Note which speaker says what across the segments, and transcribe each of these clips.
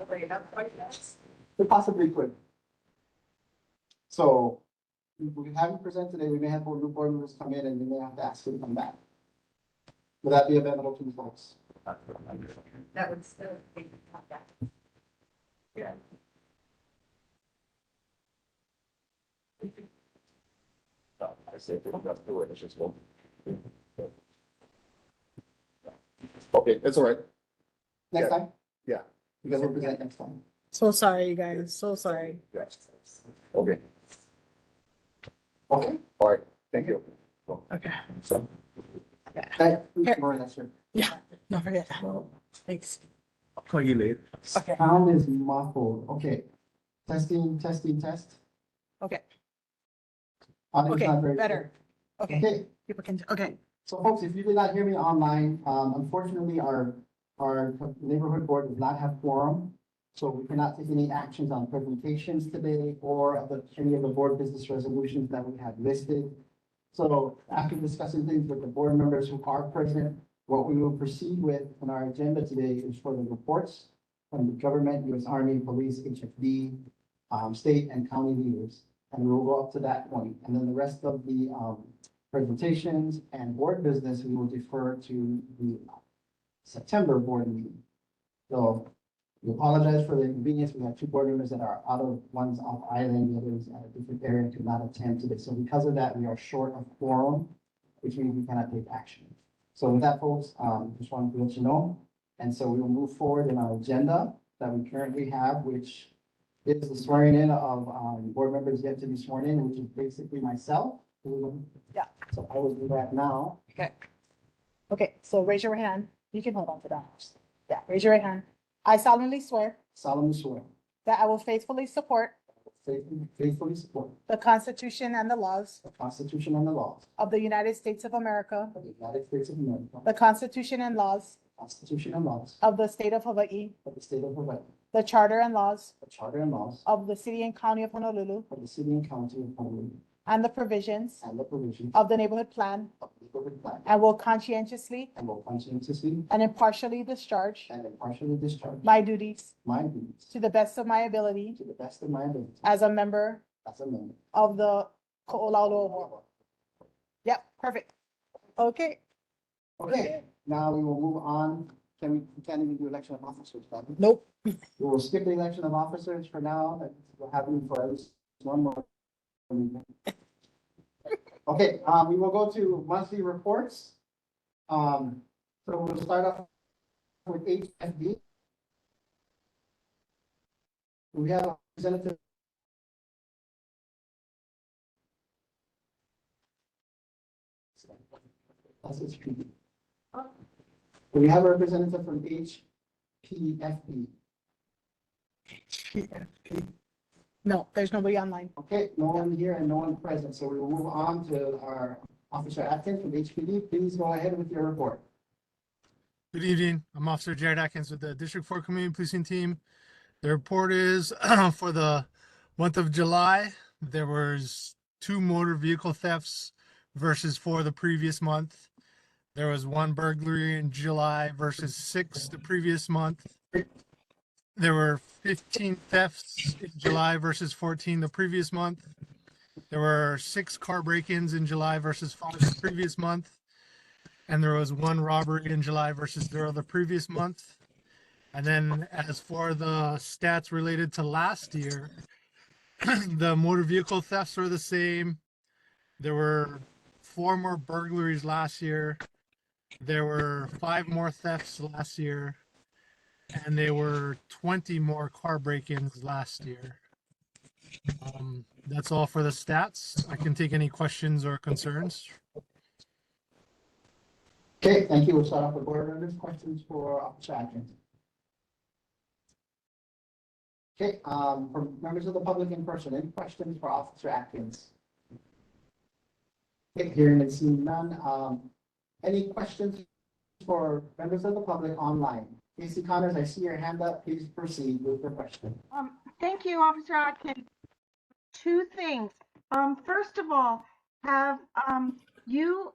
Speaker 1: Okay, that's quite nice.
Speaker 2: We possibly could. So we haven't presented it, we may have new board members come in and we may have to ask them to come back. Would that be available to you folks?
Speaker 1: That would still be not bad. Yeah.
Speaker 3: No, I said, we don't have to do it, it's just one. Okay, it's all right.
Speaker 2: Next time?
Speaker 3: Yeah.
Speaker 2: You guys will present next time.
Speaker 4: So sorry, you guys. So sorry.
Speaker 3: Yes. Okay,
Speaker 2: Okay.
Speaker 3: all right, thank you.
Speaker 4: Okay.
Speaker 2: That, Maureen, that's your,
Speaker 4: Don't forget that. Thanks.
Speaker 3: I'll call you later.
Speaker 4: Okay.
Speaker 2: sound is muffled, okay. Testing, testing, test.
Speaker 4: Okay.
Speaker 2: Audio is
Speaker 4: Okay,
Speaker 2: not very
Speaker 4: better.
Speaker 2: clear.
Speaker 4: Okay.
Speaker 2: Okay,
Speaker 4: People can, okay.
Speaker 2: So folks, if you did not hear me online, um, unfortunately, our, our neighborhood board does not have quorum. So we cannot take any actions on presentations today or of the- any of the board business resolutions that we have listed. So after discussing things with the board members who are present, what we will proceed with on our agenda today is for the reports from the government, US Army, police, HFD, um, state and county leaders. And we'll go up to that point. And then the rest of the, um, presentations and board business, we will defer to the September board meeting. So we apologize for the inconvenience. We have two board members that are out of, one's off island, the other's at a different area, could not attend today. So because of that, we are short of quorum, which means we cannot take action. So with that, folks, um, just wanted to let you know. And so we will move forward in our agenda that we currently have, which is the swearing in of, um, board members yet to be sworn in, which is basically myself. who so I will do that now.
Speaker 4: Okay. Okay, so raise your right hand. You can hold on to that. Yeah, raise your right hand. I solemnly swear
Speaker 2: solemnly swear,
Speaker 4: that I will faithfully support
Speaker 2: faithfully- faithfully support
Speaker 4: the Constitution and the laws
Speaker 2: the Constitution and the laws
Speaker 4: of the United States of America,
Speaker 2: of the United States of America, the
Speaker 4: the Constitution and laws
Speaker 2: Constitution and laws
Speaker 4: of the state of Hawaii,
Speaker 2: of the state of Hawaii,
Speaker 4: the charter and laws
Speaker 2: the charter and laws
Speaker 4: of the city and county of Honolulu,
Speaker 2: of the city and county of Honolulu,
Speaker 4: and the provisions
Speaker 2: and the provisions
Speaker 4: of the neighborhood plan,
Speaker 2: of the neighborhood plan,
Speaker 4: and will conscientiously
Speaker 2: and will conscientiously
Speaker 4: and impartially discharge
Speaker 2: and impartially discharge
Speaker 4: my duties
Speaker 2: my duties
Speaker 4: to the best of my ability
Speaker 2: to the best of my ability
Speaker 4: as a member
Speaker 2: as a member.
Speaker 4: of the Ko'olauloa Board. Yep, perfect. Okay,
Speaker 2: Okay, now we will move on. Can we, we can't even do election of officers, Bobby.
Speaker 4: nope.
Speaker 2: We will skip the election of officers for now, that will happen for at least one more. meeting. Okay, um, we will go to monthly reports. Um, so we'll start off with HFD. We have a representative. That's it. We have a representative from HPFD.
Speaker 4: No, there's nobody online.
Speaker 2: Okay, no one here and no one present, so we will move on to our Officer Atkins from HPD. Please go ahead with your report.
Speaker 5: Good evening. I'm Officer Jared Atkins with the District Four Community Policing Team. The report is for the month of July, there was two motor vehicle thefts versus four the previous month. There was one burglary in July versus six the previous month. There were fifteen thefts in July versus fourteen the previous month. There were six car break-ins in July versus five the previous month. And there was one robbery in July versus zero the previous month. And then as for the stats related to last year, the motor vehicle thefts were the same. There were four more burglaries last year. There were five more thefts last year. And there were 20 more car break ins last year. Um, that's all for the stats. I can take any questions or concerns.
Speaker 2: Okay, thank you. We'll start off with board members. Questions for Officer Atkins? Okay, um, for members of the public in person, any questions for Officer Atkins? Okay, hearing and seeing none, um, any questions for members of the public online? Casey Connors, I see your hand up. Please proceed with your question.
Speaker 6: Um, thank you, Officer Atkins. Two things. Um, first of all, have, um, you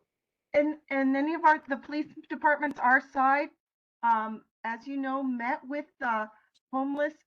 Speaker 6: and, and any of our, the police departments, our side, um, as you know, met with the homeless